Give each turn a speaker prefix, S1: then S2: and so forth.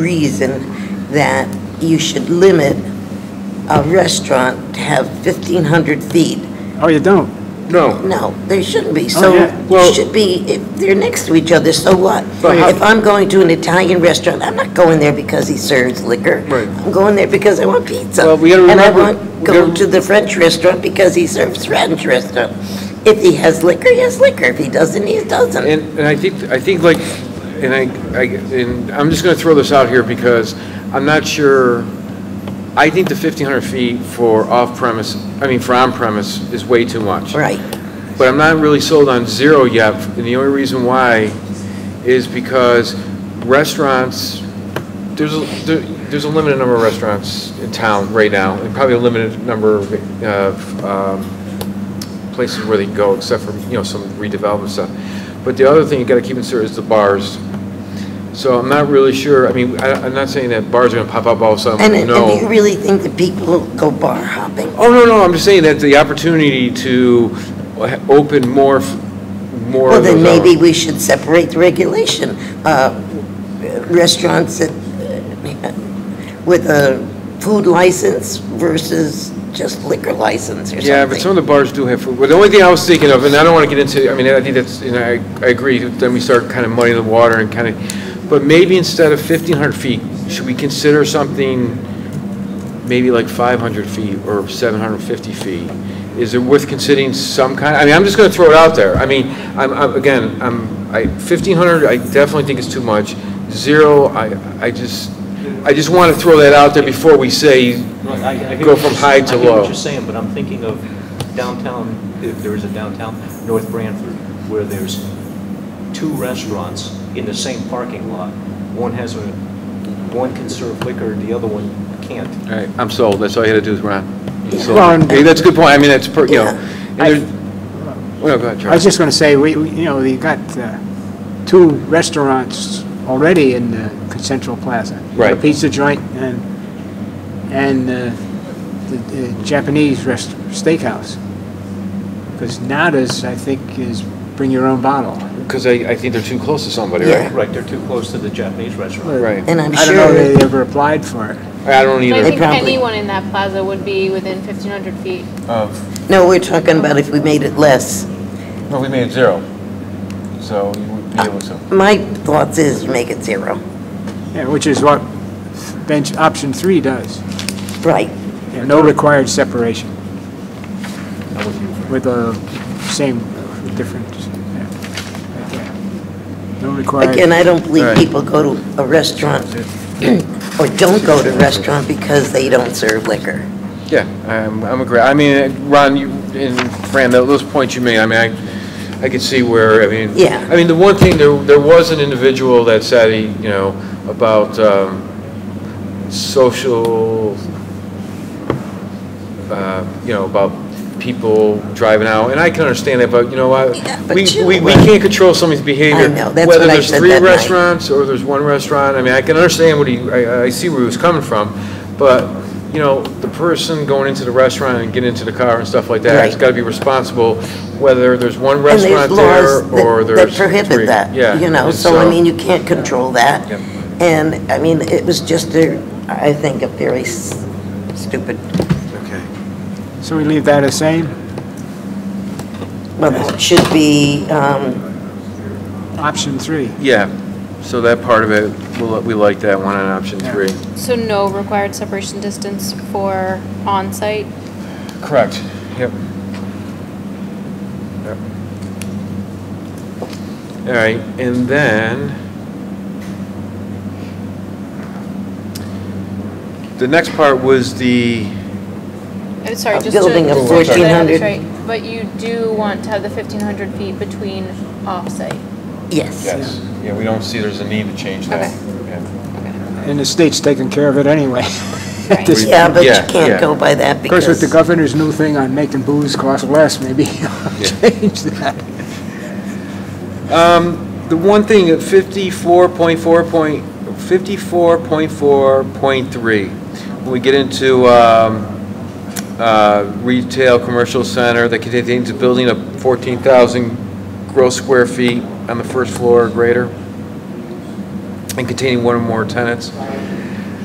S1: reason that you should limit a restaurant to have 1,500 feet.
S2: Oh, you don't?
S3: No,
S1: No, there shouldn't be.
S2: Oh,
S1: So
S2: yeah.
S3: Well-
S1: it should be, if they're next to each other, so what?
S3: But how-
S1: If I'm going to an Italian restaurant, I'm not going there because he serves liquor.
S3: Right.
S1: I'm going there because I want pizza.
S3: Well, we gotta
S1: And
S3: remember-
S1: I
S3: we
S1: want,
S3: gotta-
S1: go to the French restaurant because he serves French restaurant. If he has liquor, he has liquor. If he doesn't, he doesn't.
S3: and, and I think, I think like, and I, I, and I'm just gonna throw this out here because I'm not sure, I think the 1,500 feet for off-premise, I mean, for on-premise is way too much.
S1: Right.
S3: But I'm not really sold on zero yet, and the only reason why is because restaurants, there's, a there- there's a limited number of restaurants in town right now, and probably a limited number of, of, um, places where they can go, except for, you know, some redevelopment stuff. But the other thing you gotta keep in consider is the bars. So I'm not really sure, I mean, I, I'm not saying that bars are gonna pop up all of a
S1: And,
S3: sudden,
S1: and
S3: Oh, no.
S1: do you really think that people go bar hopping?
S3: Oh, no, no, I'm just saying that the opportunity to ha- open more, f- more
S1: Well,
S3: of
S1: then
S3: those
S1: maybe
S3: hours.
S1: we should separate the regulation. Uh, Restaurants that, uh, with a food license versus just liquor license or
S3: Yeah, but some
S1: something.
S3: of the bars do have food. Well, the only thing I was thinking of, and I don't want to get into, I mean, I think that's, and I, I agree, then we start kind of muddying the water and kind of, but maybe instead of 1,500 feet, should we consider something maybe like 500 feet or 750 feet? Is it worth considering some kind, I mean, I'm just going to throw it out there. I mean, I'm, I'm- again, I'm, I, 1,500, I definitely think is too much. Zero, I, I just, I just want to throw that out there before we say,
S4: Right, I- I hear
S3: Go
S4: what
S3: from
S4: you're-
S3: high to
S4: I hear
S3: low.
S4: what you're saying, but I'm thinking of downtown, if there is a downtown, North Branford, where there's two restaurants in the same parking lot. One has a, one can serve liquor, the other one can't.
S3: All right, I'm sold, that's all you had to do is run. You sold.
S2: Well, and-
S3: Hey, That's a good point, I mean, that's, per- you know.
S1: Yeah.
S3: and there's- Well, go ahead,
S2: I was
S3: Charlie.
S2: just going to say, we, we- you know, we got uh, two restaurants already in the Central Plaza.
S3: Right.
S2: A pizza joint and, and uh, the- the Japanese rest, steakhouse. Because Nada's, I think, is bring your own bottle.
S3: Because I, I think they're too close to somebody,
S1: Yeah.
S3: right?
S4: Right, they're too close to the Japanese restaurant.
S3: Right.
S1: And I'm
S2: I don't know
S1: sure,
S2: if they ever applied for it.
S3: I don't
S5: I
S3: either.
S5: think
S1: probably-
S5: anyone in that plaza would be within 1,500 feet.
S3: Oh,
S1: no, we're talking about if we made it less.
S3: Well, we made it zero, so you would be able to.
S1: My thoughts is make it zero.
S2: Yeah, which is what bench, option three does.
S1: Right.
S2: Yeah, No required separation
S4: I'm with you.
S2: with the same, different, yeah, right there. No required.
S1: Again, I don't believe
S3: Right.
S1: people go to a restaurant or don't go to a restaurant because they don't serve liquor.
S3: Yeah, I'm, I'm agree, I mean, Ron, you, and Fran, tho- those points you made, I mean, I, I could see where, I mean.
S1: Yeah.
S3: I mean, the one thing, there, there was an individual that said, he, you know, about, um, social, uh, you know, about people driving out, and I can understand that, but you know what?
S1: Yeah, but
S3: We,
S1: you-
S3: we, we can't control somebody's behavior.
S1: I know, that's
S3: Whether
S1: what I
S3: there's
S1: said
S3: three
S1: that night.
S3: restaurants or there's one restaurant, I mean, I can understand what he, I, I see where he was coming from, but, you know, the person going into the restaurant and getting into the car and stuff like that, has
S1: Right.
S3: gotta be responsible, whether there's one
S1: And there's
S3: restaurant
S1: laws
S3: there
S1: that-
S3: or there's.
S1: That
S3: three.
S1: prohibit that,
S3: Yeah.
S1: you know,
S3: it's,
S1: so I
S3: uh,
S1: mean, you can't control that.
S3: Yep.
S1: And, I mean, it was just a, I think, a very s- stupid,
S3: Okay.
S2: So we leave that as same?
S1: well, it should be, um,
S2: Option three.
S3: Yeah, so that part of it, we'll- we like that one on option
S2: Yeah.
S3: three.
S5: So no required separation distance for on-site.
S3: Correct, yep. Yep. All right, and then, the next part was the,
S5: I'm Uh, sorry,
S1: A
S5: just to.
S1: building of
S5: just to make sure that I have
S1: 1,400.
S5: this right, But you do want to have the 1,500 feet between off-site.
S1: yes.
S3: yes, yeah, we don't see there's a need to change that.
S5: Okay.
S3: Yeah.
S2: And the state's taking care of it anyway.
S5: Right.
S2: This-
S1: Yeah, but you
S3: Yeah, yeah.
S1: can't go by that
S2: Of course, with
S1: because,
S2: the governor's new thing on making booze cost less, maybe he'll change that.
S3: The one thing, at 54.4 point, 54.4.3, when we get into um, uh, retail, commercial center that contains a building of 14,000 gross square feet on the first floor or greater. and containing one or more tenants.